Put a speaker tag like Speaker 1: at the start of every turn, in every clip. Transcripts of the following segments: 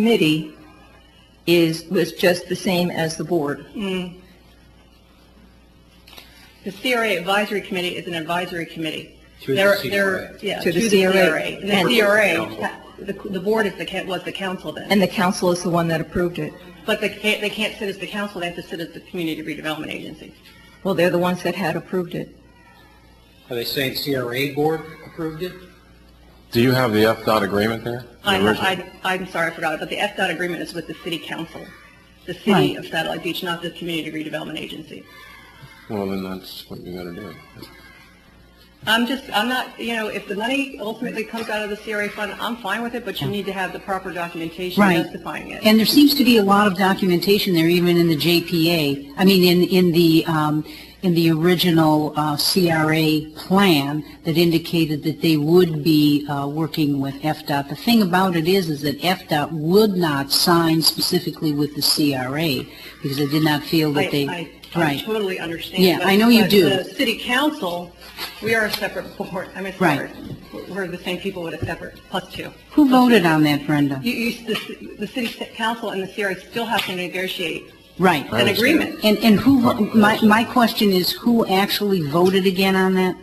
Speaker 1: committee is, was just the same as the board.
Speaker 2: The CRA advisory committee is an advisory committee.
Speaker 3: To the
Speaker 2: They're-
Speaker 3: CRA.
Speaker 2: they're- Yeah,
Speaker 1: To
Speaker 2: to
Speaker 1: the
Speaker 2: the
Speaker 1: CRA.
Speaker 2: CRA. And
Speaker 1: And-
Speaker 2: the
Speaker 3: Council.
Speaker 2: CRA, the, the board is the, ca- was the council then.
Speaker 1: And the council is the one that approved it.
Speaker 2: But they can't, they can't sit as the council, they have to sit as the community redevelopment agency.
Speaker 1: Well, they're the ones that had approved it.
Speaker 3: Are they saying CRA board approved it?
Speaker 4: Do you have the FDOT agreement there? The
Speaker 2: I'm,
Speaker 4: original?
Speaker 2: I- I'm sorry, I forgot, but the FDOT agreement is with the city council, the city
Speaker 1: Right.
Speaker 2: of Satellite Beach, not the community redevelopment agency.
Speaker 4: Well, then that's what you gotta do.
Speaker 2: I'm just, I'm not, you know, if the money ultimately comes out of the CRA fund, I'm fine with it, but you need to have the proper documentation
Speaker 5: Right.
Speaker 2: justifying it.
Speaker 5: And there seems to be a lot of documentation there, even in the JPA, I mean, in, in the, um, in the original uh, CRA plan that indicated that they would be uh, working with FDOT. The thing about it is, is that FDOT would not sign specifically with the CRA because they did not feel
Speaker 2: I-
Speaker 5: that they,
Speaker 2: I- I
Speaker 5: right.
Speaker 2: totally understand.
Speaker 5: Yeah,
Speaker 2: but-
Speaker 5: I know you
Speaker 2: but
Speaker 5: do.
Speaker 2: The city council, we are a separate board, I mean,
Speaker 5: Right.
Speaker 2: separate. We're the same people with a separate, plus two.
Speaker 5: Who voted on that, Brenda?
Speaker 2: You, you, the, the city council and the CRA still have to negotiate
Speaker 5: Right.
Speaker 2: an agreement.
Speaker 5: And, and who, vo- my, my question is, who actually voted again on that?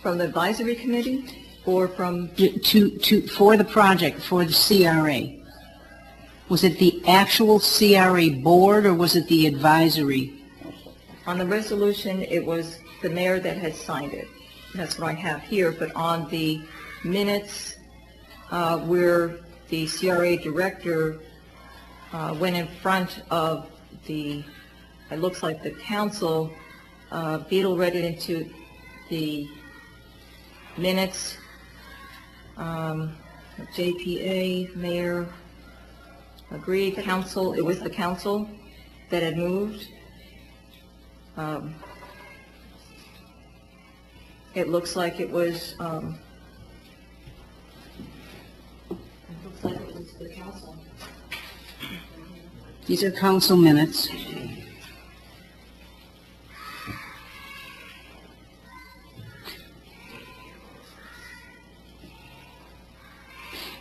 Speaker 1: From the advisory committee or from,
Speaker 5: to, to, for the project, for the CRA? Was it the actual CRA board or was it the advisory?
Speaker 1: on the resolution, it was the mayor that had signed it. That's what I have here, but on the minutes, uh, where the CRA director, uh, went in front of the, it looks like the council, uh, Beadle read it into the minutes, um, JPA, mayor, agreed, council, it was the council that had moved. Um, It looks like it was, um, it looks like it was the council.
Speaker 5: These are council minutes.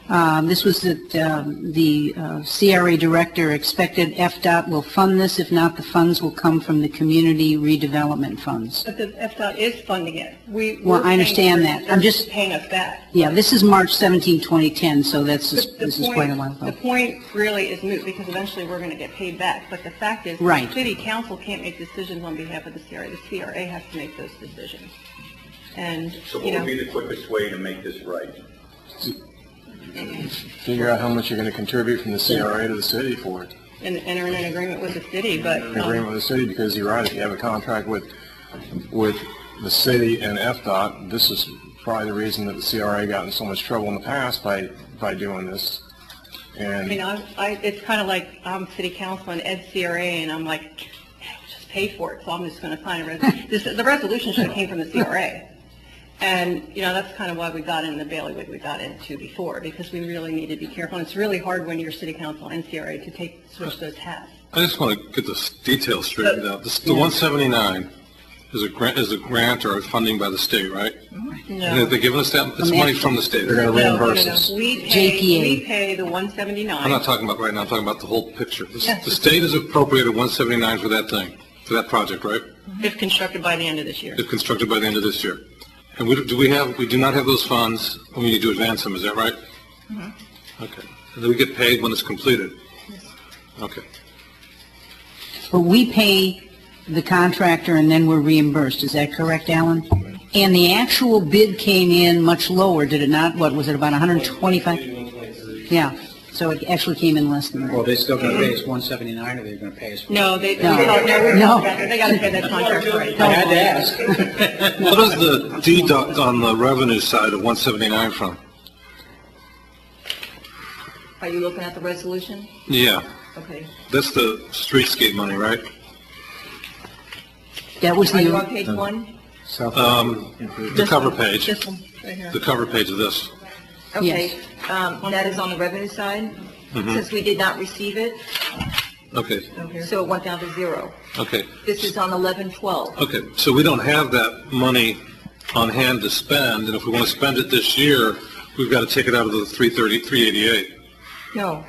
Speaker 5: Um, This was that um, the uh, CRA director expected FDOT will fund this. If not, the funds will come from the community redevelopment funds.
Speaker 2: But the FDOT is funding it. We.
Speaker 5: Well,
Speaker 2: we're
Speaker 5: I understand
Speaker 2: paying for it.
Speaker 5: that. I'm
Speaker 2: They're
Speaker 5: just-
Speaker 2: Paying us back.
Speaker 5: Yeah, this is March 17, 2010, so that's,
Speaker 2: But the
Speaker 5: this is
Speaker 2: point-
Speaker 5: quite a while
Speaker 2: The
Speaker 5: ago.
Speaker 2: point really is moot because eventually we're going to get paid back, but the fact is.
Speaker 5: Right.
Speaker 2: The city council can't make decisions on behalf of the CRA. The CRA has to make those decisions. And,
Speaker 6: So what
Speaker 2: you
Speaker 6: would
Speaker 2: know,
Speaker 6: be the quickest way to make this right?
Speaker 4: Figure out how much you're gonna contribute from the CRA to the city for it.
Speaker 2: and enter in an agreement with the city, but. um,
Speaker 4: An agreement with the city, because you're right, if you have a contract with, with the city and FDOT, this is probably the reason that the CRA got in so much trouble in the past by, by doing this.
Speaker 2: I mean,
Speaker 4: And,
Speaker 2: I, I, it's kind of like I'm city council and Ed CRA, and I'm like, just pay for it, so I'm just going to sign a resolution. This, the resolution should have came from the CRA. And, you know, that's kind of why we got in the bailiwick we got into before, because we really need to be careful. And it's really hard when you're city council and CRA to take, switch those hats.
Speaker 7: I just want to get the s- details straightened out. This, the 179 is a grant, is a grant or a funding by the state, right? And if
Speaker 2: No.
Speaker 7: they're giving us that, it's money from the state.
Speaker 4: They're gonna-
Speaker 2: No, no, no.
Speaker 4: reimburses.
Speaker 2: We pay,
Speaker 5: JPA.
Speaker 2: we pay the one
Speaker 7: I'm not
Speaker 2: seventy-nine.
Speaker 7: talking about right now, I'm talking about the whole picture. The,
Speaker 2: Yes.
Speaker 7: s- the state has appropriated 179 for that thing, for that project, right?
Speaker 2: If constructed by the end of this year.
Speaker 7: If constructed by the end of this year. And we, do we have, we do not have those funds, and we need to advance them, is that right? Okay. And then we get paid when it's completed? Okay.
Speaker 5: But we pay the contractor and then we're reimbursed, is that correct, Alan? And the actual bid came in much lower, did it not? What, was it about 125? Yeah, so it actually came in less than
Speaker 3: Well,
Speaker 5: that.
Speaker 3: they still gonna pay us one seventy-nine, or they're gonna pay us?
Speaker 2: No, they,
Speaker 5: No.
Speaker 2: no, no, we-
Speaker 5: No.
Speaker 2: they got to pay that contract right.
Speaker 3: I had to ask.
Speaker 7: What is the deduct on the revenue side of 179 from?
Speaker 1: Are you looking at the resolution?
Speaker 7: Yeah.
Speaker 1: Okay.
Speaker 7: That's the streetscape money, right?
Speaker 5: That was
Speaker 1: Are you on
Speaker 5: the,
Speaker 1: page one?
Speaker 4: Uh,
Speaker 7: Um, the cover page,
Speaker 2: This one, right here.
Speaker 7: the cover page of this.
Speaker 1: Okay. Um, that is on the revenue side, since we did not receive it,
Speaker 7: Okay,
Speaker 1: so it went down to zero.
Speaker 7: okay,
Speaker 1: This is on eleven twelve.
Speaker 7: okay. So we don't have that money on hand to spend, and if we want to spend it this year, we've got to take it out of the 330, 388.
Speaker 1: No,